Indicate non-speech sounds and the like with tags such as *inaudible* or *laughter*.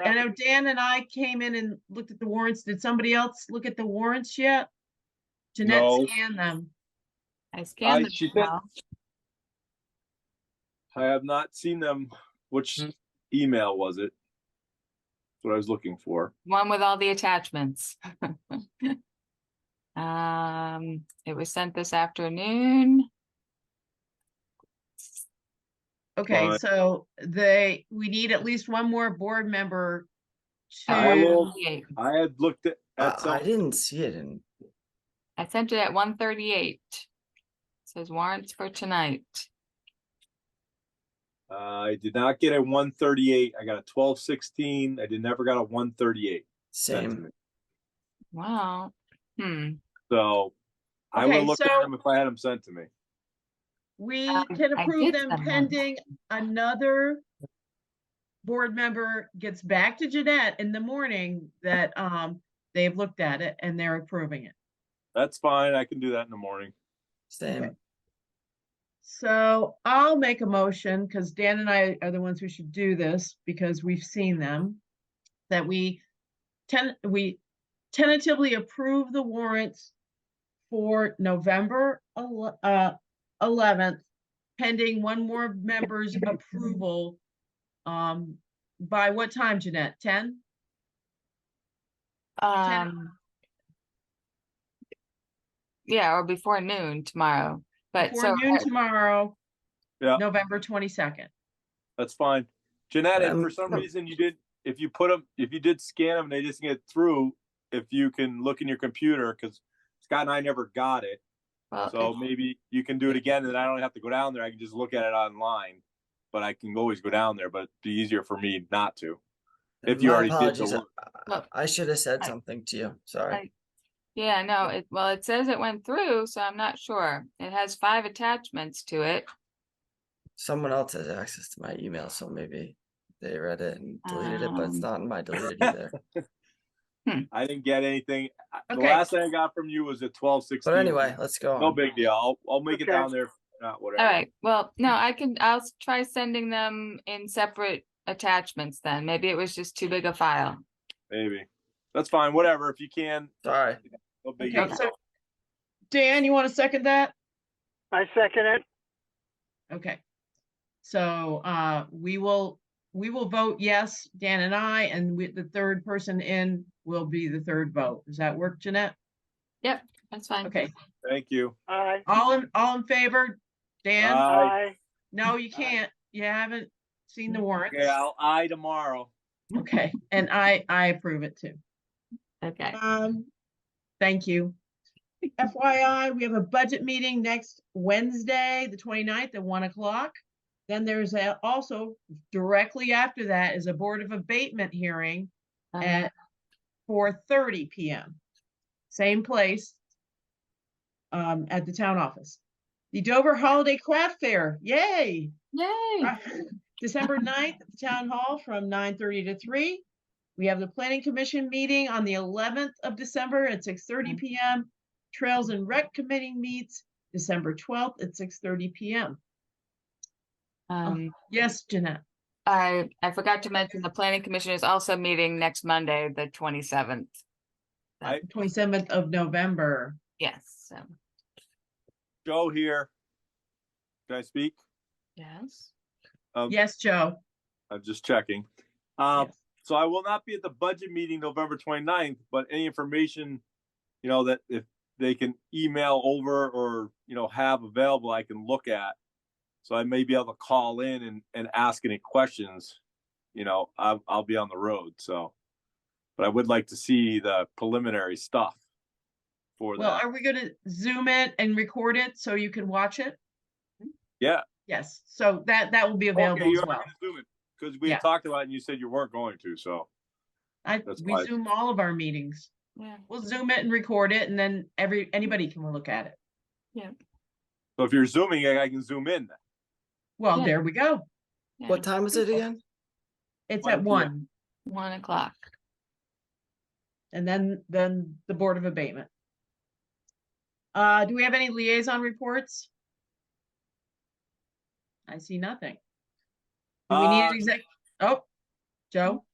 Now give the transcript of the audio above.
I know Dan and I came in and looked at the warrants. Did somebody else look at the warrants yet? Jeanette No. scanned them. I scanned them she did. now. I have not seen them. Which Hmm. email was it? That's What I was looking for. One with all the attachments. *laughs* Um, it was sent this afternoon. Okay, Fine. so they, we need at least one more board member I to, will- 1:38. I had looked at, Uh, at I some, didn't see it in, I sent it at one thirty-eight. Says warrants for tonight. uh, I did not get a one thirty-eight. I got a twelve sixteen. I did never got a one thirty-eight. same. Wow. Hmm. So I would Okay, look at so- them if I had them sent to me. we Um, Uh, can I approve did them send them. pending another board member gets back to Jeanette in the morning that, um, they've looked at it and they're approving it. That's fine. I can do that in the morning. Same. So I'll make a motion, because Dan and I are the ones who should do this, because we've seen them. That we ten, we tentatively approve the warrants for November ele- uh, eleventh, pending one more member's approval. Um, by what time, Jeanette? Ten? Um. Yeah, or before noon tomorrow, but uh, so Before noon I- tomorrow. Yeah. November twenty-second. That's fine. Jeanette, if Um, for some no. reason you did, if you put them, if you did scan them and they just get through, if you can look in your computer, because Scott and I never got it. well, So if- maybe you can do it again and I don't have to go down there. I can just look at it online. But I can always go down there, but it'd be easier for me not to. If you My already did the apologies, I- work. Look, I should have said I- something to you, sorry. I- yeah, no, it, well, it says it went through, so I'm not sure. It has five attachments to it. Someone else has access to my email, so maybe they read it and deleted it, but it's Um, not in my deleted *laughs* either. I didn't get anything. I- The Okay. last thing I got from you was a twelve sixteen. But anyway, let's go No on. big deal. I'll, I'll make it Okay. down there. Not All whatever. right, well, no, I can, I'll s- try sending them in separate attachments then. Maybe it was just too big a file. Maybe. That's fine. Whatever. If you can, Sorry, no big Okay, deal. so Dan, you want to second that? I second it. Okay. So uh, we will, we will vote yes, Dan and I, and with the third person in will be the third vote. Does that work, Jeanette? That's fine. Okay, Thank you. Aye. all in, all in favor? Dan? Uh, Aye. Aye. No, you can't. You haven't seen the warrants. Okay, I'll, I tomorrow. Okay, and I, I approve it too. Okay, Um, thank you. FYI, we have a budget meeting next Wednesday, the 29th at one o'clock. Then there's a, also directly after that is a Board of Abatement hearing um, at four thirty PM. Same place. Um, at the town office. The Dover Holiday Craft Fair, yay! yay, Uh, *laughs* December 9th, at the town hall from nine thirty to three. We have the planning commission meeting on the eleventh of December at six thirty Mm-hmm. Mhm. PM. Trails and Rec Committee meets December twelfth at six thirty PM. um. Yes, Jeanette. I, I forgot to mention the planning commission is also meeting next Monday, the twenty-seventh. Twenty-seventh of November. Yes, so, Joe here. Can I speak? yes. Um, Yes, Joe. I'm just checking. Um, Yes. so I will not be at the budget meeting November 29th, but any information, you know, that if they can email over or, you know, have available, I can look at. So I may be able to call in and, and ask any questions, you know, I'll, I'll be on the road, so. But I would like to see the preliminary stuff for Well, that. are we gonna zoom it and record it so you can watch it? Yeah. Yes, so that, that will be available as well. Because we Yeah. had talked about it and you said you weren't going to, so. I, that's we why- zoom all of our meetings. Yeah, We'll zoom it and record it and then every, anybody can look at it. So if you're zooming, I I can zoom in. Well, Yeah. there we go. yeah, what time was it again? It's 1 at p.m. one, One o'clock. and then, then the Board of Abatement. Uh, do we have any liaison reports? I see nothing. Do we need Uh, an exec? Oh, Joe,